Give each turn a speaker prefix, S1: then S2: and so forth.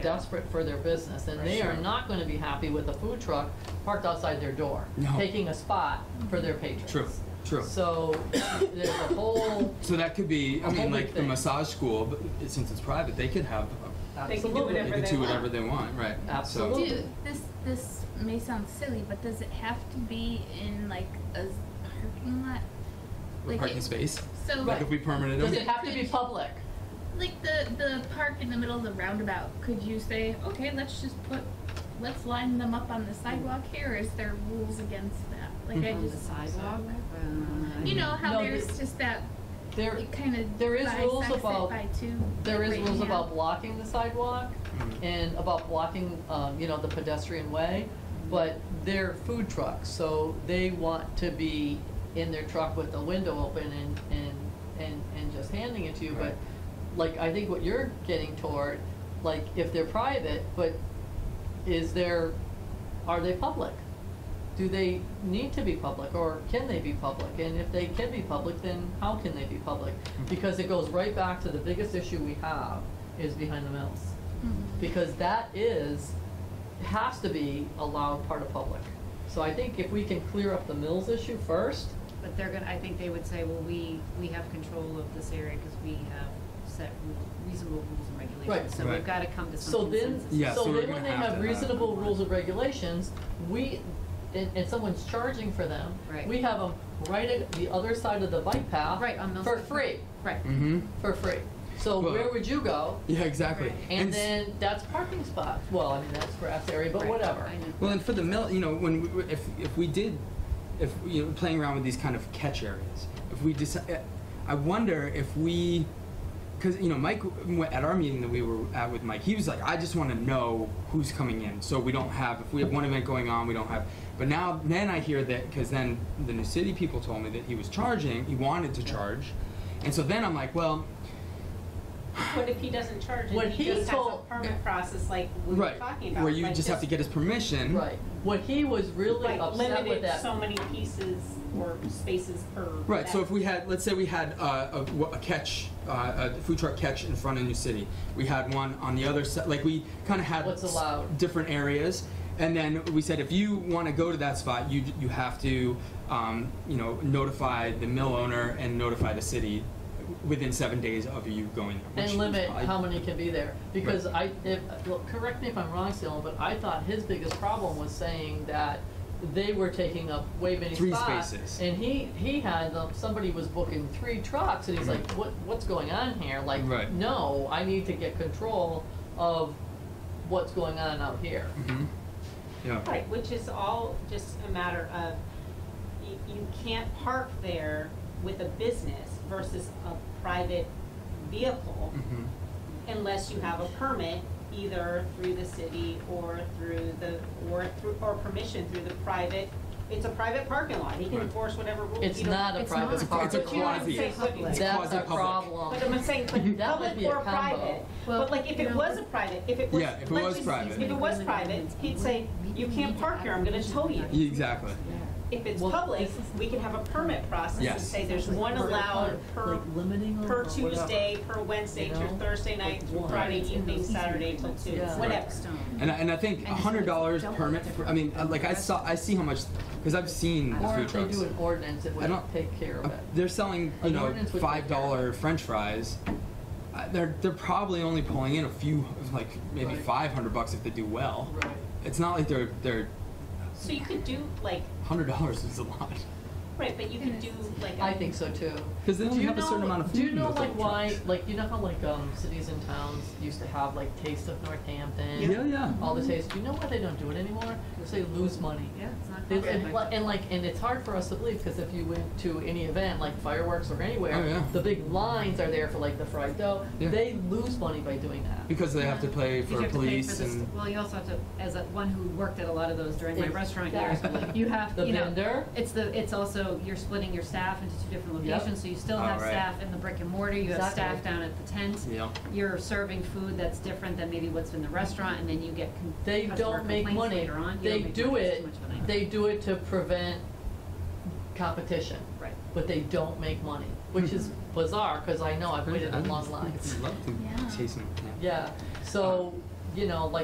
S1: desperate for their business, and they are not gonna be happy with a food truck parked outside their door,
S2: No.
S1: taking a spot for their patrons.
S2: True, true.
S1: So, there's a whole,
S2: So that could be, I
S1: whole
S2: mean,
S1: big
S2: like the
S1: thing.
S2: massage school, but it- since it's private, they could have, uh,
S3: They can do
S1: absolutely.
S2: they
S3: Whatever
S2: could
S3: they
S2: do
S3: want.
S2: whatever they want, right? So-
S1: Absolutely.
S4: Do, this this may sound silly, but does it have to be in like a s- parking lot?
S2: A
S4: Like
S2: parking
S4: it-
S2: space,
S4: So
S2: like if we permanent
S1: Does
S2: them.
S1: it have to be public?
S4: like the the park in the middle of the roundabout, could you say, okay, let's just put, let's line them up on the sidewalk here? Or is there rules against that? Like I
S5: On the
S4: just,
S5: sidewalk? um,
S4: you know how
S1: No,
S4: there's
S1: there-
S4: just that
S1: There,
S4: it kind of
S1: there is rules
S4: bisects it
S1: about-
S4: by two.
S1: there is
S4: right
S1: rules
S4: now.
S1: about blocking the sidewalk
S2: Mhm.
S1: and about blocking, um, you know, the pedestrian way, but they're food trucks, so they want to be in their truck with the window open and, and, and, and just handing it to you, but
S2: Right.
S1: like, I think what you're getting toward, like, if they're private, but is there, are they public? Do they need to be public, or can they be public? And if they can be public, then how can they be public? Because it goes right back to the biggest issue we have is behind the mills.
S4: Mhm.
S1: Because that is, has to be allowed part of public. So I think if we can clear up the mills issue first,
S5: But they're gonna, I think they would say, well, we, we have control of this area because we have set rule- reasonable rules and
S1: Right.
S5: regulations. So
S2: Right.
S5: we've gotta come to
S1: So
S5: some
S1: then,
S5: consensus.
S2: Yeah, so
S1: so
S2: we're
S1: then
S2: gonna
S1: when they
S2: have to uh,
S1: have
S2: have
S1: reasonable
S2: one.
S1: rules and regulations, we, and, and someone's charging for them,
S5: Right.
S1: we have them right at the other side of the bike path.
S5: Right, on Mill
S1: For
S5: Street.
S1: free,
S5: Right.
S2: Mm-hmm,
S1: for free. So
S2: Well-
S1: where would you go?
S2: yeah, exactly.
S5: Right.
S1: And
S2: s-
S1: then, that's parking spot, well, I mean, that's grass area, but
S5: Right.
S1: whatever.
S5: I know.
S2: Well, and for the mill, you know, when we, if if we did, if you know, playing around with these kind of catch areas, if we decide, I wonder if we, because you know, Mike w- at our meeting that we were at with Mike, he was like, I just want to know who's coming in, so we don't have if we have one event going on, we don't have. But now, then I hear that because then the new city people told me that he was charging, he wanted to charge, and so then I'm like, well,
S3: What if he doesn't charge
S1: When
S3: and he
S1: he
S3: just has a
S1: told-
S3: permit process like we were
S2: right,
S3: talking about?
S2: where you
S3: like
S2: just have to get his permission,
S1: Right, what he was really
S3: like
S1: upset with
S3: limited
S1: that.
S3: so many pieces or spaces per.
S2: Right. So
S3: that-
S2: if we had, let's say we had uh, a, w- a catch, uh, a food truck catch in front of New City. We had one on the other side. Like we kind of had
S1: What's
S2: s-
S1: allowed.
S2: different areas, and then we said if you want to go to that spot, you you have to, um, you know, notify the mill owner and notify the city within seven days of you going there.
S1: And
S2: which
S1: limit
S2: I-
S1: how many can be there, because I, if, well, correct me if I'm wrong, Salem, but I thought his biggest problem was saying that they were taking up way many
S2: Three
S1: spots.
S2: spaces.
S1: And he, he had, them- somebody was booking three trucks, and he's like, what, what's going on here? Like,
S2: Right.
S1: no, I need to get control of what's going on out here.
S2: Mhm. Yeah.
S3: Right, which is all just a matter of, you, you can't park there with a business versus a private vehicle
S2: Mhm.
S3: unless you have a permit, either through the city or through the, or through, or permission through the private, it's a private parking lot, he can
S2: Right.
S3: enforce whatever rules.
S1: It's
S3: you don't-
S1: not a
S5: It's not.
S1: private
S2: It's a- it's a
S1: parking
S3: But you know what
S1: lot.
S3: I'm
S2: quasi-
S3: saying, but-
S5: It's
S1: That's our
S2: quasi-public.
S1: problem.
S3: But I'm saying, but
S1: That would
S3: public
S1: be a
S3: or
S1: combo.
S3: private,
S5: Well,
S3: but like if
S5: you
S3: it
S5: know,
S3: was a private, if it was,
S2: Yeah, if it
S3: let's
S2: was
S3: just-
S2: private.
S3: If it was private, he'd say, you can't park here, I'm gonna tow you.
S2: Yeah, Exactly.
S3: If it's
S1: Well,
S3: public,
S1: this is-
S3: we can have a permit process and
S2: Yes.
S3: say there's one
S1: Like,
S3: allowed per,
S1: like limiting them
S3: per
S1: or whatever.
S3: Tuesday, per Wednesday,
S1: You
S3: through
S1: know?
S3: Thursday night,
S1: Like
S3: through
S1: one.
S3: Friday
S5: It's in
S3: evening,
S5: those
S3: Saturday till
S5: easement
S3: two,
S1: agreements. Yeah.
S3: whatever.
S5: Stone.
S2: And I, and I think a
S5: And
S2: hundred dollars
S5: double
S2: permit.
S5: the
S2: For, I mean,
S5: difference.
S2: like I saw, I see how much because I've seen the
S1: Or
S2: food
S1: if they
S2: trucks.
S1: do an ordinance, it
S2: I
S1: would
S2: don't-
S1: take care
S2: Uh,
S1: of it.
S2: They're selling, you
S1: An
S2: know,
S1: ordinance would take
S2: five
S1: care of
S2: dollar French fries. Uh, They're they're probably only pulling in a few, like maybe
S1: Right.
S2: five hundred bucks if they do well.
S1: Right.
S2: It's not like they're they're
S3: So you could do like,
S2: hundred dollars is a lot
S3: right, but you could do like a.
S1: I think so too.
S2: because they
S1: Do
S2: only
S1: you
S2: have a certain
S1: know-
S2: amount of food.
S1: Do you
S2: in
S1: know
S2: those
S1: like
S2: little
S1: why,
S2: trucks.
S1: like, you know how like, um, cities and towns used to have like Taste of Northampton?
S2: Yeah, yeah.
S1: All the taste, do you know why they don't do it anymore? Because they lose money.
S5: Yeah, it's not.
S1: They-
S5: covered
S1: And
S5: by-
S1: and like, and it's hard for us to believe, because if you went to any event, like fireworks or
S2: Oh, yeah.
S1: anywhere, the big lines are there for like the fried dough.
S2: Yeah.
S1: They lose money by doing that.
S2: Because they have to pay
S5: You
S2: for
S5: have to pay
S2: police
S5: the
S2: and
S5: st- Well, you also have to, as a, one who worked at a lot of those during my restaurant years,
S1: Exactly.
S5: you have,
S1: The
S5: you know.
S1: vendor?
S5: It's the, it's also, you're splitting your staff into two different
S1: Yep.
S5: locations, so you still
S2: Oh,
S5: have
S2: right.
S5: staff in the brick and mortar, you have
S1: Exactly.
S5: staff down at the tent.
S2: yeah.
S5: You're serving food that's different than maybe what's in the restaurant, and then you get con-
S1: They
S5: customer
S1: don't make
S5: complaints
S1: money.
S5: later on. You
S1: They
S5: don't make
S1: do
S5: money. It's
S1: it,
S5: too much money.
S1: they do it to prevent competition.
S5: Right.
S1: but they don't make money, which is bizarre because I know I've waited in long lines.
S2: I'd love to
S4: Yeah.
S2: chase them.
S1: Yeah, so you know, like